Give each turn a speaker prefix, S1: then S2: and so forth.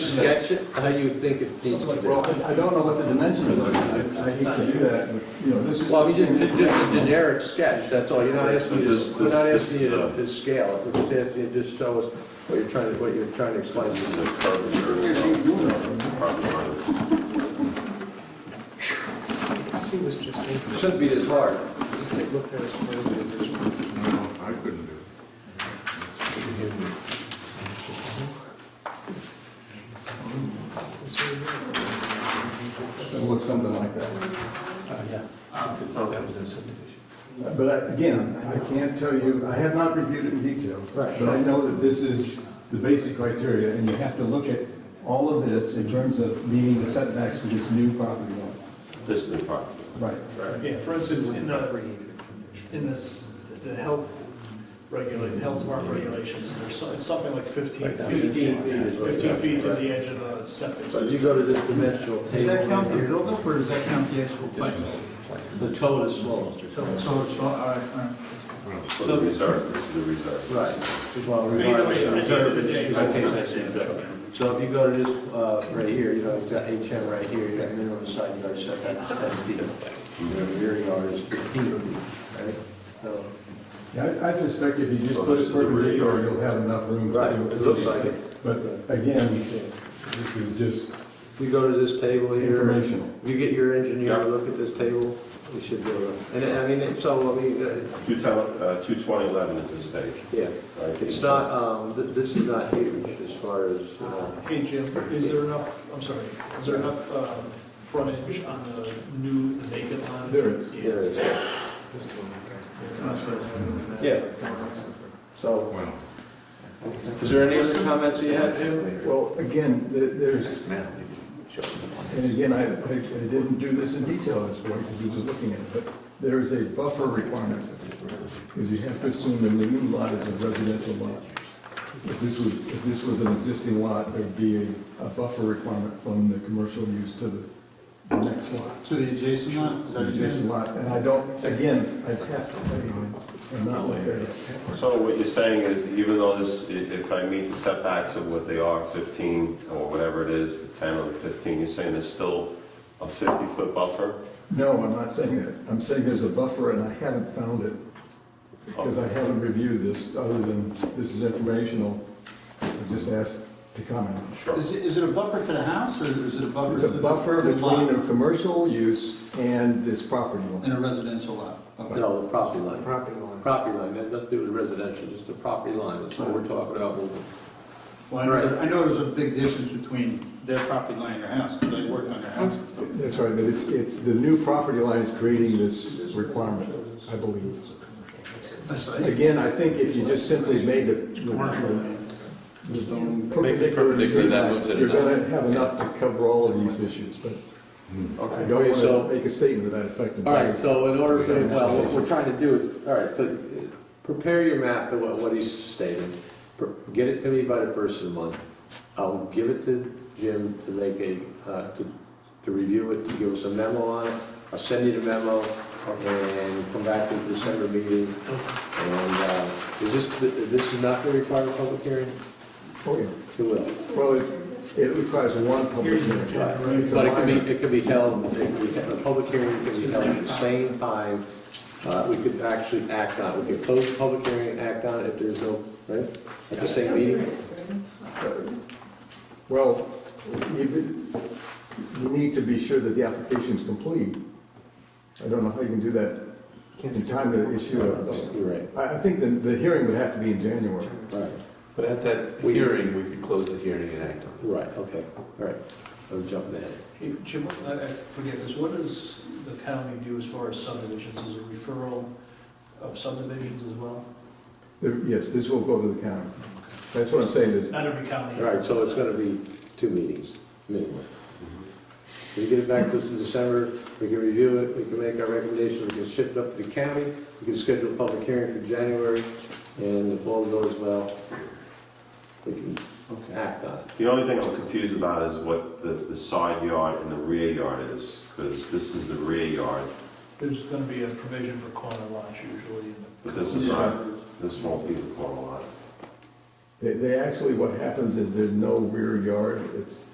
S1: sketch it how you think it needs to be done?
S2: I don't know what the dimensions are, I I hate to do that, but, you know, this is.
S1: Well, I mean, just, ju- just a generic sketch, that's all, you're not asking, you
S3: This is-
S1: to- we're not
S3: this-
S1: asking you to
S3: this, uh,
S1: to scale it, we're just asking you to just show us what you're trying to, what you're trying to explain.
S3: This is a curvature of the property line.
S4: This was just,
S1: It
S4: does
S1: Shouldn't be this hard.
S4: this get looked at as part of the original?
S5: No, I couldn't do
S4: It's really good.
S2: It looks something like that.
S6: Oh, that was no subdivision.
S2: But I- again, I can't tell you, I have not reviewed it in detail. But I know that this is the basic criteria, and you have to look at all of this in terms of meeting the setbacks to this new property line.
S3: This is the property.
S2: Right.
S7: Yeah, for instance, in the, in this, the health regulate, health department regulations, there's so- it's something like 15 feet, 15 feet to the edge of a septic
S1: So
S7: system.
S1: you go to this dimensional
S8: Does that
S1: table,
S8: count the buildup or does that count the actual pipe?
S1: the total is small.
S8: So it's, all right, all right.
S3: So the reserve, this is the reserve.
S1: Right. Well,
S7: Either way, it's at the end of the day,
S1: regardless,
S7: it's-
S1: okay.
S7: it's- it's-
S1: So if you go to this, uh, right here, you know, it's got HM right here, you got minimum side yard setback is ten feet. Your rear yard is fifteen feet, right? So,
S2: Yeah, I I suspect if you just
S3: Well,
S2: put it
S3: this is the rear
S2: perpendicular,
S3: yard.
S2: you'll have enough room to do.
S1: Right, it looks like it.
S2: But again, this is just
S1: if you go to this table here,
S2: informational.
S1: if you get your engineer
S3: Yeah.
S1: to look at this table, we should do it. And I mean, it- so, I mean, uh,
S3: Two ten, uh, two twenty eleven is this page.
S1: yeah,
S3: right?
S1: it's not, um, th- this is not huge as far as, uh,
S7: Hey, Jim, is there enough, I'm sorry, is there enough um, frontage on the new vacant lot?
S2: There is.
S7: Yeah,
S1: there is.
S7: It's not sure.
S1: Yeah. So,
S5: it. Well,
S1: Is there any other comments you have, Jim?
S2: Well, again, th- there's, and again, I I- I didn't do this in detail at this point because we were looking at it, but there is a buffer requirement. Because you have to assume that the new lot is a residential lot. If this was, if this was an existing lot, there would be a a buffer requirement from the commercial use to the- the next lot.
S8: To the adjacent lot, is that
S2: The
S8: what you
S2: adjacent lot, and I don't, again, I have to, I'm not like that.
S3: So what you're saying is even though this, i- if I meet the setbacks of what they are, fifteen or whatever it is, the ten or the fifteen, you're saying there's still a fifty-foot buffer?
S2: No, I'm not saying that. I'm saying there's a buffer and I haven't found it. Because I haven't reviewed this, other than this is informational. I just asked to comment.
S3: Sure.
S8: Is it, is it a buffer to the house or is it a buffer
S2: It's
S8: to
S2: a
S8: the?
S2: buffer
S8: to the lot
S2: between a commercial use and this property line.
S8: And a residential lot? Okay.
S1: No, the property line.
S4: Property line.
S1: Property line, that has nothing to do with residential, just the property line, that's what we're talking about.
S8: Well, I know, I know there's a big difference between their property line and their house, because I work on their house.
S2: That's right, but it's, it's, the new property line is creating this requirement, I believe.
S8: That's what I-
S2: Again, I think if you just simply made the. the- the
S6: perpendicular, that moves it
S2: You're
S6: enough.
S2: gonna have enough to cover all of these issues, but I don't
S1: Okay, so-
S2: wanna make a statement to that effect.
S1: All right, so in order, to- well, what we're trying to do is, all right, so prepare your map to what, what he's stating. Pr- Get it to me by the first of the month. I'll give it to Jim to make a, uh, to, to review it, to give us a memo on it. I'll send you the memo and come back to the December meeting. And, uh, is this, this is not gonna require a public hearing?
S2: Oh, yeah.
S1: It will.
S2: Well, it- it requires one public hearing.
S1: But it could be, it could be held, it could be- the public hearing could be held at the same time. Uh, We could actually act on it. We could close the public hearing and act on it if there's no, right? At the same meeting?
S2: Well, you, you need to be sure that the application's complete. I don't know how you can do that
S4: Can't
S2: in
S4: skip
S2: time to issue a,
S1: You're right.
S2: I, I think the, the hearing would have to be in January.
S1: Right,
S6: But at that
S1: We-
S6: hearing, we could close the hearing and act on
S1: right, okay, all right. I'm jumping ahead.
S7: Hey, Jim, I I forget this, what does the county do as far as subdivisions? Is it referral of subdivisions as well?
S2: There- Yes, this will go to the county. That's what I'm saying is,
S7: Not every county.
S1: All right, so it's gonna be two meetings, minimum. We get it back to us in December, we can review it, we can make our recommendations, we can ship it up to the county, we can schedule a public hearing for January, and if all goes well, we can act on it.
S3: The only thing I'm confused about is what the, the side yard and the rear yard is, because this is the rear yard,
S7: There's going to be a provision for corner lots usually in the
S3: but this is not, this won't be the corner lot.
S2: They, they actually, what happens is there's no rear yard, it's